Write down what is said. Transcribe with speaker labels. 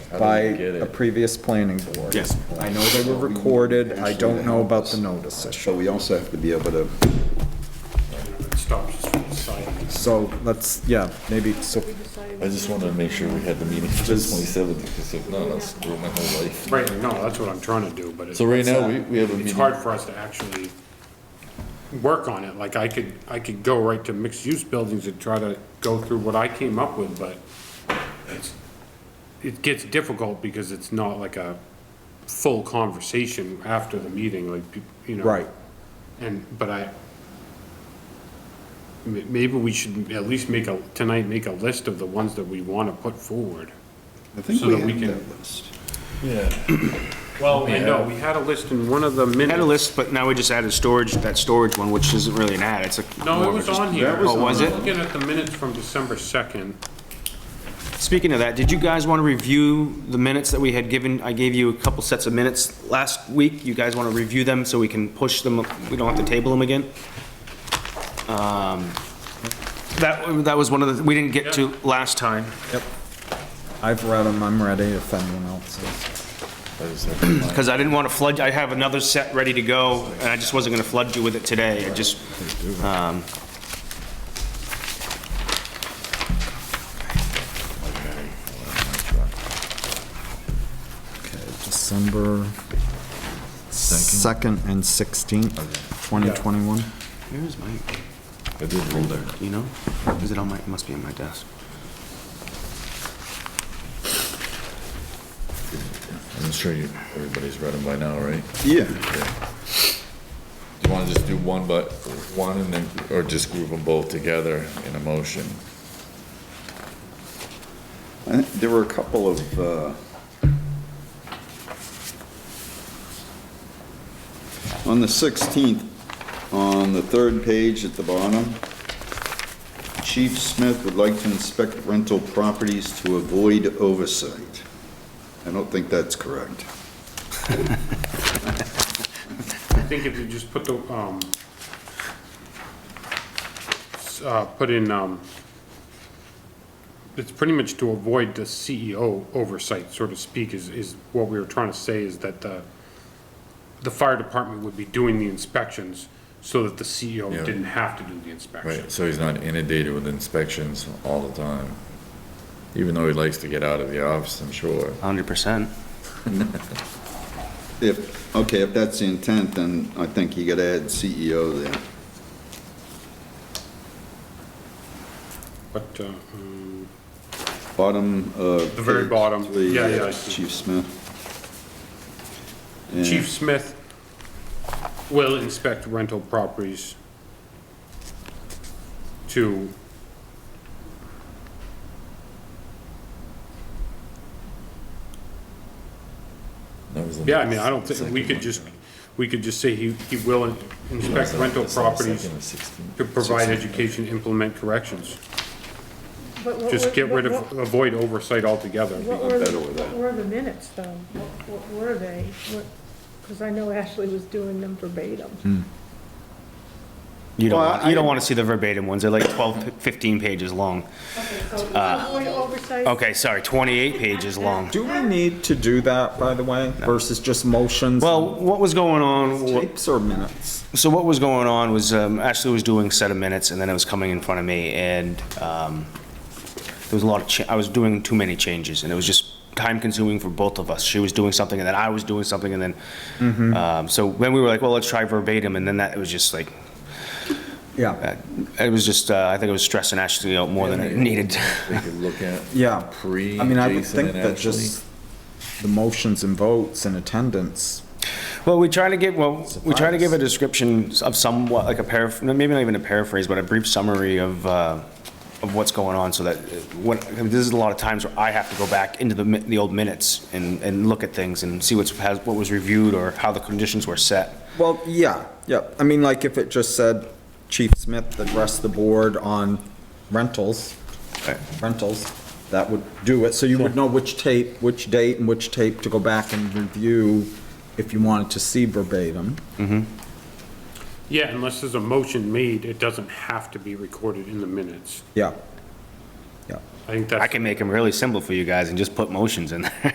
Speaker 1: by
Speaker 2: I get it.
Speaker 1: a previous planning board.
Speaker 3: Yes.
Speaker 1: I know they were recorded, I don't know about the notices.
Speaker 4: So we also have to be able to,
Speaker 5: It stops us from signing.
Speaker 1: So let's, yeah, maybe, so
Speaker 2: I just wanted to make sure we had the meeting for the twenty-seventh, because if not, I'll screw my whole life.
Speaker 5: Right, no, that's what I'm trying to do, but it's.
Speaker 2: So right now, we, we have a
Speaker 5: It's
Speaker 2: meeting.
Speaker 5: hard for us to actually work on it, like I could, I could go right to mixed-use buildings and try to go through what I came up with, but it's, it gets difficult because it's not like a full conversation after the meeting, like, you know.
Speaker 1: Right.
Speaker 5: And, but I, m- maybe we should at least make a, tonight, make a list of the ones that we want to put forward.
Speaker 4: I think
Speaker 5: So
Speaker 4: we
Speaker 5: that we
Speaker 4: have
Speaker 5: can-
Speaker 4: that list.
Speaker 2: Yeah,
Speaker 5: Well, I know, we had a list in one of the minutes.
Speaker 3: Had a list, but now we just added storage, that storage one, which isn't really an ad, it's a.
Speaker 5: No,
Speaker 3: more
Speaker 5: it
Speaker 3: of a
Speaker 5: was
Speaker 3: just-
Speaker 5: on here.
Speaker 3: Oh, was it?
Speaker 5: I'm Looking at the minutes from December 2nd.
Speaker 3: Speaking of that, did you guys want to review the minutes that we had given? I gave you a couple sets of minutes last week. You guys want to review them so we can push them, we don't have to table them again? Um, That, that was one of the, we didn't get to last time.
Speaker 1: I've read them, I'm ready if anyone else is.
Speaker 2: I just have to
Speaker 3: Because I didn't want to flood, I have another set ready to go, and I just wasn't going to flood you with it today, I just, um...
Speaker 1: Okay, December 2nd and 16th, 2021.
Speaker 3: Where's my,
Speaker 2: I did roll there.
Speaker 3: you know? Is it on my, it must be on my desk.
Speaker 2: I'm sure you, everybody's read them by now, right?
Speaker 4: Yeah,
Speaker 2: Do you want to just do one, but, one and then, or just group them both together in a motion?
Speaker 4: I think there were a couple of, uh, on the 16th, on the third page at the bottom, Chief Smith would like to inspect rental properties to avoid oversight. I don't think that's correct.
Speaker 5: I think if you just put the, um, s- uh, put in, um, it's pretty much to avoid the CEO oversight, so to speak, is, is what we were trying to say, is that the, the fire department would be doing the inspections so that the CEO
Speaker 2: Yeah.
Speaker 5: didn't have to do the inspection.
Speaker 2: Right, so he's not inundated with inspections all the time, even though he likes to get out of the office, I'm sure.
Speaker 3: 100%.
Speaker 4: If, okay, if that's the intent, then I think you gotta add CEO there.
Speaker 5: But, uh, um,
Speaker 4: Bottom of.
Speaker 5: The very
Speaker 4: page
Speaker 5: bottom.
Speaker 4: three,
Speaker 5: Yeah, yeah, I see.
Speaker 4: Chief Smith. Yeah.
Speaker 5: Chief Smith will inspect rental properties to,
Speaker 2: That was the
Speaker 5: yeah, I mean, I don't think,
Speaker 2: second
Speaker 5: we could
Speaker 2: one.
Speaker 5: just, we could just say he, he will inspect
Speaker 2: That's on-
Speaker 5: rental
Speaker 2: that's on the
Speaker 5: properties
Speaker 2: second or 16th.
Speaker 5: to provide
Speaker 2: 16th.
Speaker 5: education, implement corrections.
Speaker 6: But what were-
Speaker 5: Just get rid
Speaker 6: what-
Speaker 5: of, avoid oversight altogether.
Speaker 6: What were,
Speaker 4: better with that.
Speaker 6: what were the minutes though? What, what were they? Because I know Ashley was doing them verbatim.
Speaker 3: You don't,
Speaker 4: Well,
Speaker 3: want- you don't want to see the verbatim ones, they're like 12, 15 pages long.
Speaker 6: Employee oversight?
Speaker 3: Okay, sorry, 28 pages long.
Speaker 1: Do we need to do that, by the way, versus just motions?
Speaker 3: Well, what was going on, wa-
Speaker 1: Tapes or minutes?
Speaker 3: so what was going on was um, Ashley was doing a set of minutes, and then it was coming in front of me, and um, there was a lot of, cha- I was doing too many changes, and it was just time-consuming for both of us. She was doing something, and then I was doing something, and then, um, so when we were like, well, let's try verbatim, and then that, it was just like,
Speaker 1: Yeah,
Speaker 3: uh, it was just, uh, I think it was stressing Ashley out more than it needed.
Speaker 2: We could look at.
Speaker 1: yeah.
Speaker 2: Pre,
Speaker 1: I mean, I would
Speaker 2: Jason
Speaker 1: think
Speaker 2: and
Speaker 1: that just the motions and votes and attendance,
Speaker 3: Well, we try to give, well, we try to give a description of somewhat, like a paraph, maybe not even a paraphrase, but a brief summary of, uh, of what's going on, so that, uh, what, I mean, this is a lot of times where I have to go back into the, mi- the old minutes and, and look at things and see what's, has- what was reviewed or how the conditions were set.
Speaker 1: Well, yeah, yeah. I mean, like if it just said Chief Smith addressed the board on rentals,
Speaker 3: Right.
Speaker 1: rentals, that would do it. So you would know which tape, which date and which tape to go back and review if you wanted to see verbatim.
Speaker 5: Yeah, unless there's a motion made, it doesn't have to be recorded in the minutes.
Speaker 1: Yeah. Yeah.
Speaker 5: I think that's.
Speaker 3: I can make them really simple for you guys and just put motions in there.